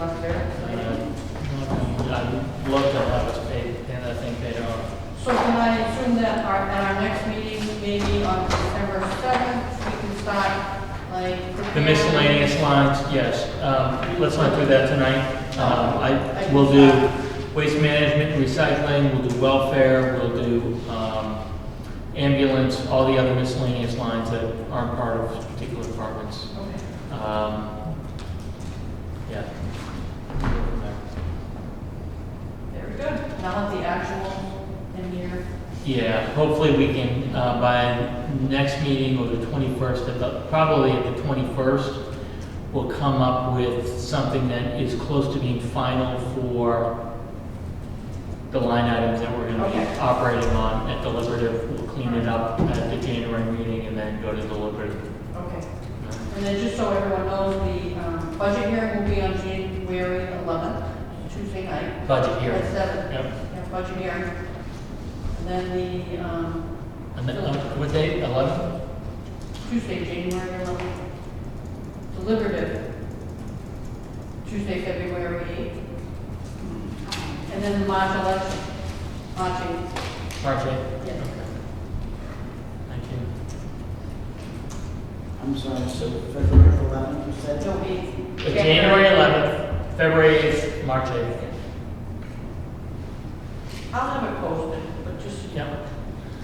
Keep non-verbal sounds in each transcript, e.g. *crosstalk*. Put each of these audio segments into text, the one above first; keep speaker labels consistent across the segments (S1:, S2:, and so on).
S1: All in favor?
S2: Um, I'd love to have us paid, and I think they are.
S1: So can I assume that our, at our next meeting, maybe on December seventh, we can start like.
S2: The miscellaneous lines, yes, um, let's not do that tonight. Um, I, we'll do waste management, recycling, we'll do welfare, we'll do, um, ambulance, all the other miscellaneous lines that aren't part of particular departments.
S1: Okay.
S2: Um, yeah.
S1: Very good. Now the actual in here.
S2: Yeah, hopefully we can, uh, by next meeting or the twenty-first, probably at the twenty-first, we'll come up with something that is close to being final for the line items that we're gonna
S1: Okay.
S2: be operating on at deliberative. We'll clean it up at the January meeting and then go to deliberative.
S1: Okay. And then just so everyone knows, the um, budget hearing will be on January 11th, Tuesday night.
S2: Budget hearing.
S1: At 7.
S2: Yep.
S1: Yeah, budget hearing. And then the um,
S2: And then, uh, what date, eleven?
S1: Tuesday, January 11th, deliberative, Tuesday, February 8th. And then the March election, March 8th.
S2: March eighth?
S1: Yes.
S2: Thank you.
S3: I'm sorry, so February 11th, you said?
S1: It'll be.
S2: Uh, January eleventh, February eighth, March eighth.
S1: I'll have it posted, but just
S2: Yeah.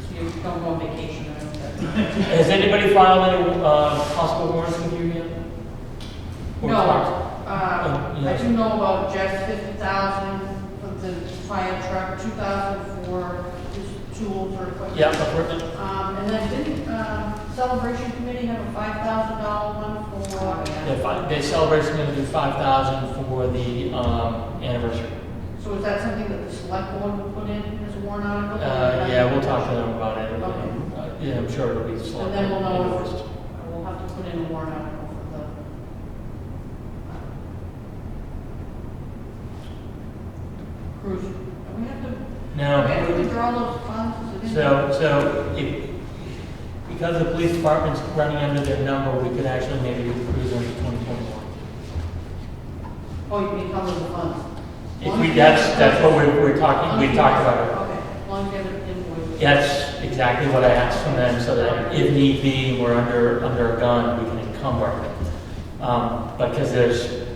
S1: so you don't go on vacation or anything.
S2: Has anybody filed any uh, possible warrants with you yet? *laughs* Or
S1: No,
S2: talked?
S1: uh,
S2: Oh, yeah.
S1: I do know about Jeff's fifty thousand for the fire truck, two thousand for his tools or equipment.
S2: Yeah, equipment.
S1: Um, and then didn't, um, celebration committee have a five thousand dollar one for? uh,
S2: The fi- The celebration going to do five thousand for the um, anniversary.
S1: So is that something that the select board would put in as a warrant article?
S2: Uh, Yeah, we'll talk to them about it.
S1: Okay.
S2: Uh, Yeah, I'm sure it'll be
S1: And
S2: selected.
S1: then we'll know,
S2: first.
S1: if- we'll have to put in a warrant article for the. uh, Cruise, And we have to
S2: No.
S1: Okay, withdraw those funds, is it in there?
S2: So, so if, because the police department's running under their number, we could actually maybe do cruise under twenty twenty-one.
S1: Oh, you mean cover the funds?
S2: If we, that's, that's what we're, we're talking, we talked about it.
S1: Okay, as long as you have an invoice.
S2: That's exactly what I asked from them, so that if need be, we're under, under a gun, we can encumber. Um, because there's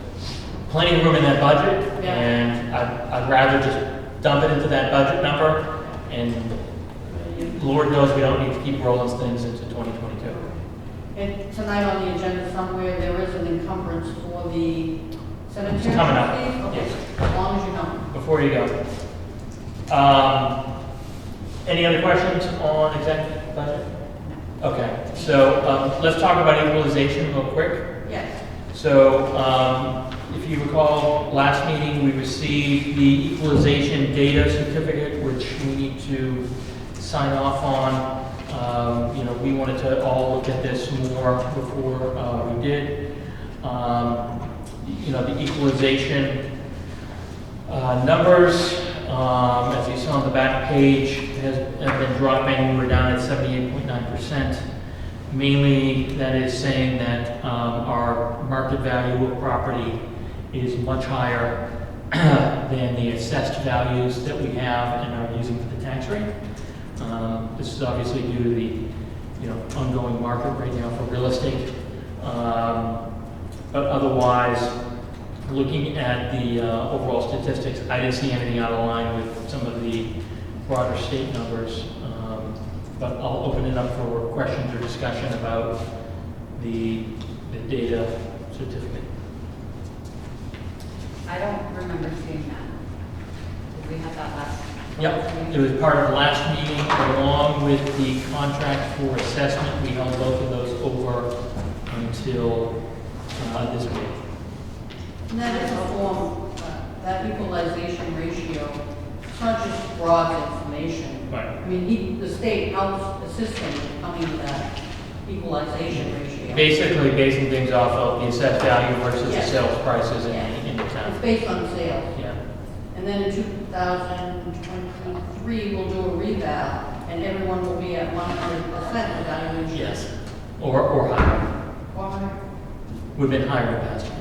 S2: plenty of room in that budget,
S1: Yeah.
S2: and I'd, I'd rather just dump it into that budget number, and Lord knows we don't need to keep rolling things into twenty twenty-two.
S1: And tonight on the agenda somewhere, there is an encumbrance for the cemetery.
S2: It's coming up,
S1: fees? Okay,
S2: yes.
S1: As long as you know.
S2: Before you go, um, any other questions on executive budget? Okay, so, um, let's talk about equalization real quick.
S1: Yes,
S2: So, um, if you recall, last meeting, we received the equalization data certificate, which we need to sign off on. Um, You know, we wanted to all look at this more before uh, we did. Um, You know, the equalization uh, numbers, um, as you saw on the back page, has have been dropping. We're down at 78.9%. Mainly, that is saying that um, our market value of property is much higher *clears throat* than the assessed values that we have and are using for the tax rate. Um, This is obviously due to the, you know, ongoing market right now for real estate. Um, But otherwise, looking at the uh, overall statistics, I didn't see anything out of line with some of the broader state numbers. Um, But I'll open it up for questions or discussion about the, the data certificate.
S4: I don't remember seeing that. Did we have that last?
S2: Yep, it was part of last meeting along with the contract for assessment. We held both of those over until uh, this week.
S1: and that is a form, uh, that equalization ratio, it's not just broad information.
S2: Right.
S1: I mean, he- the state helps assist him in coming to that equalization ratio.
S2: Basically basing things off of the assessed value versus the
S1: Yes.
S2: sales prices in,
S1: Yeah.
S2: in the town.
S1: It's based on sales.
S2: Yeah.
S1: And then in 2023, we'll do a reval, and everyone will be at 100% evaluation.
S2: Yes, or, or higher.
S1: Or-
S2: We've been higher in the past.